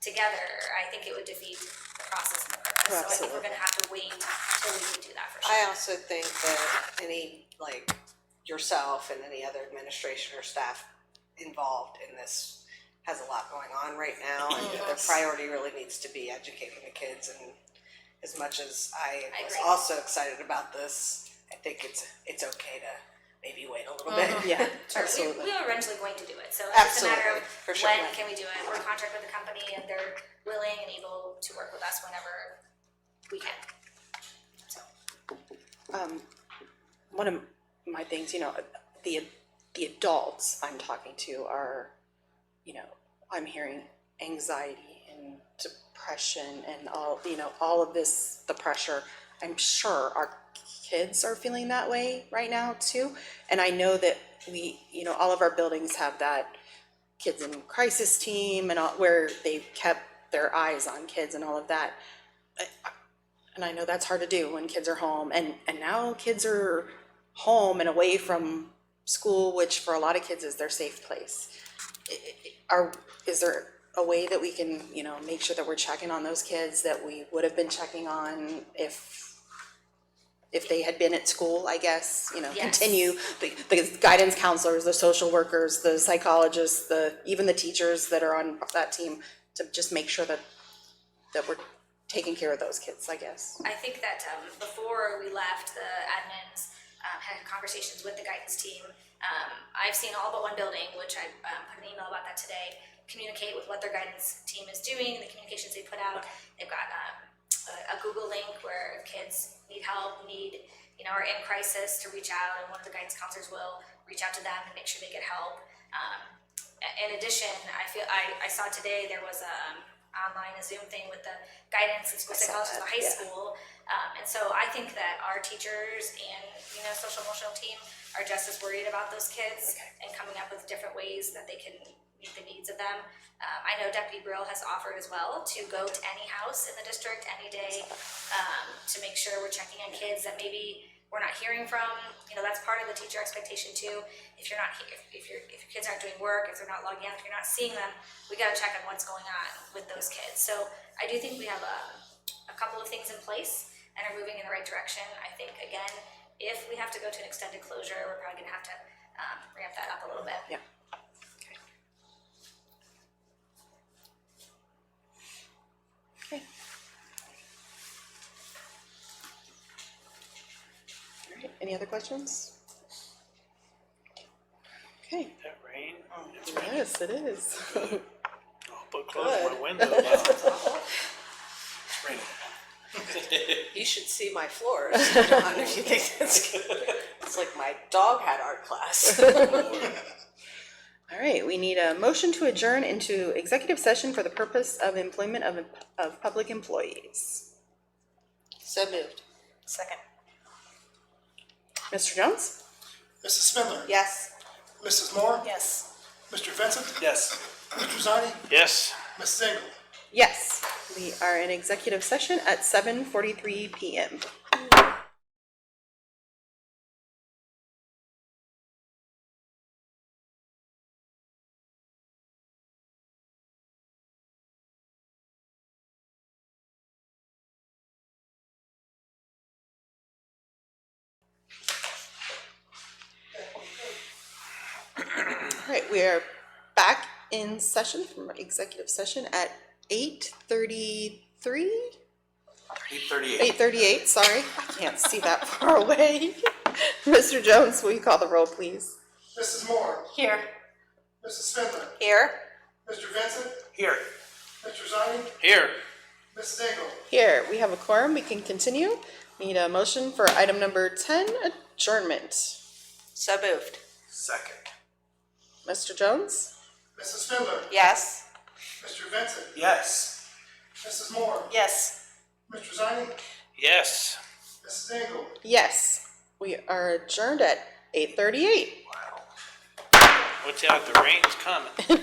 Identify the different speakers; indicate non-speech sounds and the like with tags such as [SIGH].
Speaker 1: together, I think it would defeat the process and the purpose. So I think we're
Speaker 2: Absolutely.
Speaker 1: gonna have to wait till we can do that for
Speaker 2: I
Speaker 1: sure.
Speaker 2: also think that any, like, yourself and any other administration or staff involved in this has a lot going on right now, and the
Speaker 1: Yes.
Speaker 2: priority really needs to be educating the kids, and as much as I
Speaker 1: I
Speaker 2: was
Speaker 1: agree.
Speaker 2: also excited about this, I think it's, it's okay to maybe wait a little
Speaker 1: Uh-huh. [LAUGHS]
Speaker 2: bit.
Speaker 3: Yeah,
Speaker 1: Sure,
Speaker 3: absolutely.
Speaker 1: we, we are eventually going to do it, so it's just a matter
Speaker 2: Absolutely,
Speaker 1: of
Speaker 2: for sure.
Speaker 1: when can we do it? We're in contract with the company and they're willing and able to work with us whenever we can. So,
Speaker 3: Um, one of my things, you know, the, the adults I'm talking to are, you know, I'm hearing anxiety and depression and all, you know, all of this, the pressure. I'm sure our kids are feeling that way right now too. And I know that we, you know, all of our buildings have that kids in crisis team and all, where they've kept their eyes on kids and all of that and I know that's hard to do when kids are home and and now kids are home and away from school which for a lot of kids is their safe place I- I- are is there a way that we can you know make sure that we're checking on those kids that we would have been checking on if if they had been at school i guess you know
Speaker 1: Yes.
Speaker 3: continue the, the guidance counselors the social workers the psychologists the even the teachers that are on that team to just make sure that that we're taking care of those kids i guess
Speaker 1: I think that um, before we left, the admins um, had conversations with the guidance team. Um, I've seen all but one building, which I um, put an email about that today, communicate with what their guidance team is doing, the communications they put out. They've got um, a, a Google link where if kids need help, need, you know, are in crisis to reach out, and one of the guidance counselors will reach out to them and make sure they get help. Um, in addition, I feel, I, I saw today there was a um, online a Zoom thing with the guidance and school
Speaker 3: saw
Speaker 1: psychologists of
Speaker 3: that,
Speaker 1: the high
Speaker 3: yeah.
Speaker 1: school. Um, and so I think that our teachers and, you know, social emotional team are just as worried about those kids and coming up with different ways that they can meet the needs of them. Um, I know Deputy Brill has offered as well to go to any house in the district any day, um, to make sure we're checking on kids that maybe we're not hearing from. You know, that's part of the teacher expectation too. If you're not, he- if, if your, if your kids aren't doing work, if they're not logging out, if you're not seeing them, we gotta check on what's going on with those kids. So I do think we have a, a couple of things in place and are moving in the right direction. I think, again, if we have to go to an extended closure, we're probably gonna have to, um, ramp that up a little bit.
Speaker 3: Yeah. Okay. All right, any other questions? Okay,
Speaker 4: That rain, it's
Speaker 3: yes, it is.
Speaker 4: all but close
Speaker 3: Good.
Speaker 4: my window now.
Speaker 2: You should see my floors, John, if you think
Speaker 1: [LAUGHS]
Speaker 2: that's good. It's like my dog had art class.
Speaker 3: All right, we need a motion to adjourn into executive session for the purpose of employment of, of public employees.
Speaker 2: So moved.
Speaker 1: Second.
Speaker 3: Mr. Jones?
Speaker 5: Mrs. Spindler?
Speaker 2: Yes.
Speaker 5: Mrs. Moore?
Speaker 3: Yes.
Speaker 5: Mr. Vincent?
Speaker 4: Yes.
Speaker 5: Mr. Zani?
Speaker 4: Yes.
Speaker 5: Mrs. Engel?
Speaker 3: Yes, we are in executive session at seven forty-three PM. All right, we are back in session from our executive session at eight thirty-three?
Speaker 4: Eight thirty-eight.
Speaker 3: Eight thirty-eight, sorry, I can't see that [LAUGHS] far away. Mr. Jones, will you call the roll, please?
Speaker 5: Mrs. Moore?
Speaker 3: Here.
Speaker 5: Mrs. Spindler?
Speaker 3: Here.
Speaker 5: Mr. Vincent?
Speaker 4: Here.
Speaker 5: Mr. Zani?
Speaker 4: Here.
Speaker 5: Mrs. Engel?
Speaker 3: Here, we have a quorum, we can continue. Need a motion for item number ten, adjournment.
Speaker 2: So moved.
Speaker 4: Second.
Speaker 3: Mr. Jones?
Speaker 5: Mrs. Spindler?
Speaker 2: Yes.
Speaker 5: Mr. Vincent?
Speaker 4: Yes.
Speaker 5: Mrs. Moore?
Speaker 2: Yes.
Speaker 5: Mr. Zani?
Speaker 4: Yes.
Speaker 5: Mrs. Engel?
Speaker 3: Yes, we are adjourned at eight thirty-eight.
Speaker 4: Watch out, the rain's coming.